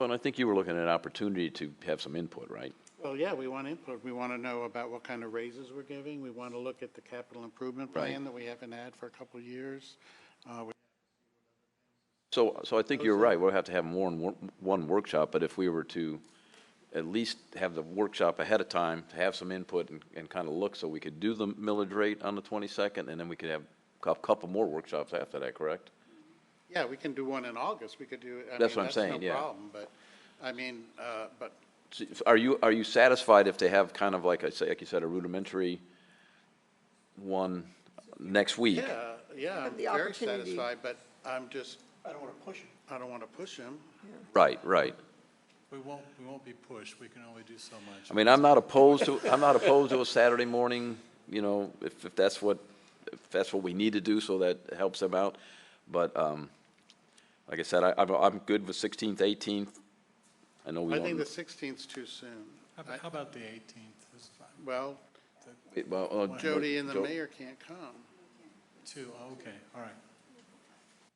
Well, and I think you were looking at an opportunity to have some input, right? Well, yeah, we want input. We want to know about what kind of raises we're giving. We want to look at the capital improvement Right. plan that we haven't had for a couple of years. Uh, we- So, so I think you're right, we'll have to have more than one- one workshop, but if we were to at least have the workshop ahead of time, to have some input and, and kind of look, so we could do the millage rate on the twenty-second, and then we could have a couple more workshops after that, correct? Yeah, we can do one in August. We could do, I mean, That's that's what I'm no saying, yeah. problem, but, I mean, uh, but So, Are you, are you satisfied if they have kind of like I say, like you said, a rudimentary one next week? Yeah, yeah, I'm the very opportunity. satisfied, but I'm just. I don't want to push him. I don't want to push him. Right, right. We won't, we won't be pushed, we can only do so much. I mean, I'm not opposed to, I'm not opposed to a Saturday morning, you know, if, if that's what, if that's what we need to do, so that helps them out. But, um, like I said, I, I'm, I'm good with sixteenth, eighteenth. I know we I think the don't, 16th's too soon. How about- how about the 18th? That's fine. Well, it- well, uh, Jody and the Jo- mayor can't come. Two, oh, okay, all right.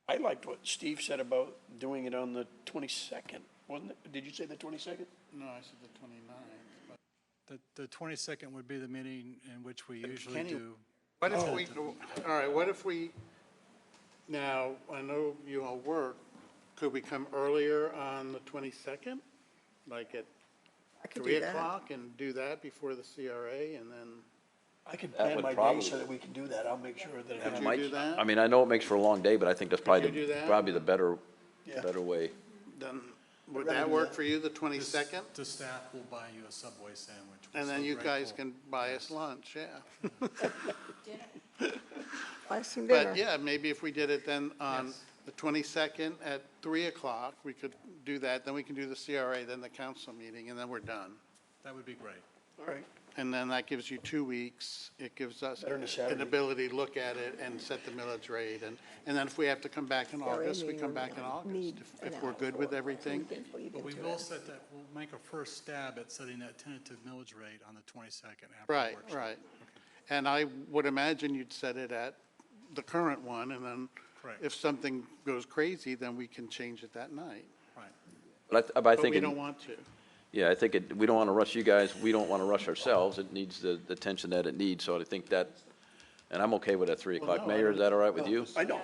I liked what Steve said about doing it on the twenty-second, wasn't it? Did you say the twenty-second? No, I said the 29th. but- The, the 22nd would be the meeting in which we usually Kenny- do. What Oh. if we, go- all right, what if we, now, I know you all work, could we come earlier on the 22nd? Like at I could 3 do that. o'clock and do that before the CRA and then? I can That plan would my day probably- so that we can do that. I'll make sure that. Could I'm- you Mike, do that? I mean, I know it makes for a long day, but I think that's probably, you do the that? probably the better, Yeah. better way. Then, would rather that do work that. for you, the The 22nd? s- The staff will buy you a Subway sandwich. We're And then so you guys grateful. can buy us lunch, yeah. Buy some dinner. But yeah, maybe if we did it then on the 22nd at 3 o'clock, we could do that, then we can do the CRA, then the council meeting, and then we're done. That would be great. All right, And then that gives you two weeks. It gives us Better than a an Saturday. ability to look at it and set the millage rate. And, and then if we have to come back in CRA August, we meeting come would back in August. need If- an If we're hour good for with it. everything, Weekend, well, you But get we to will it. set that, we'll make a first stab at setting that tentative millage rate on the 22nd after the right, workshop. right. And I would imagine you'd set it at the current one, and then Correct. if something goes crazy, then we can change it that night. Right. But I, th- but I But think, we it- don't want to. yeah, I think it, we don't want to rush you guys, we don't want to rush ourselves, it needs the, the attention that it needs, so I think that, and I'm okay with that three o'clock. Mayor, is that all right with you? I know,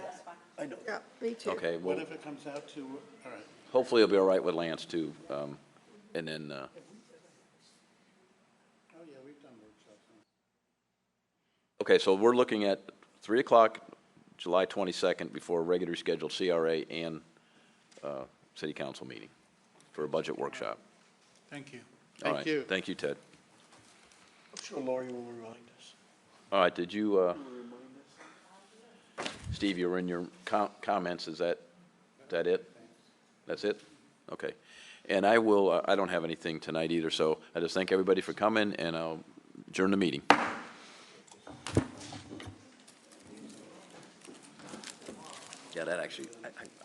I know. Yeah, me too. Okay, well. What if it comes out to, all right. Hopefully it'll be all right with Lance too, um, and then, uh, Oh, yeah, we've done workshops. okay, so we're looking at three o'clock, July twenty-second, before a regularly scheduled CRA and, uh, city council meeting for a budget workshop. Thank you. All Thank right. you. Thank you, Ted. I'm sure Lori will remind us. All right, did you, uh, Steve, you were in your com- comments, is that, is that it? That's it? Okay. And I will, uh, I don't have anything tonight either, so I just thank everybody for coming, and I'll adjourn the meeting. Yeah, that actually, I, I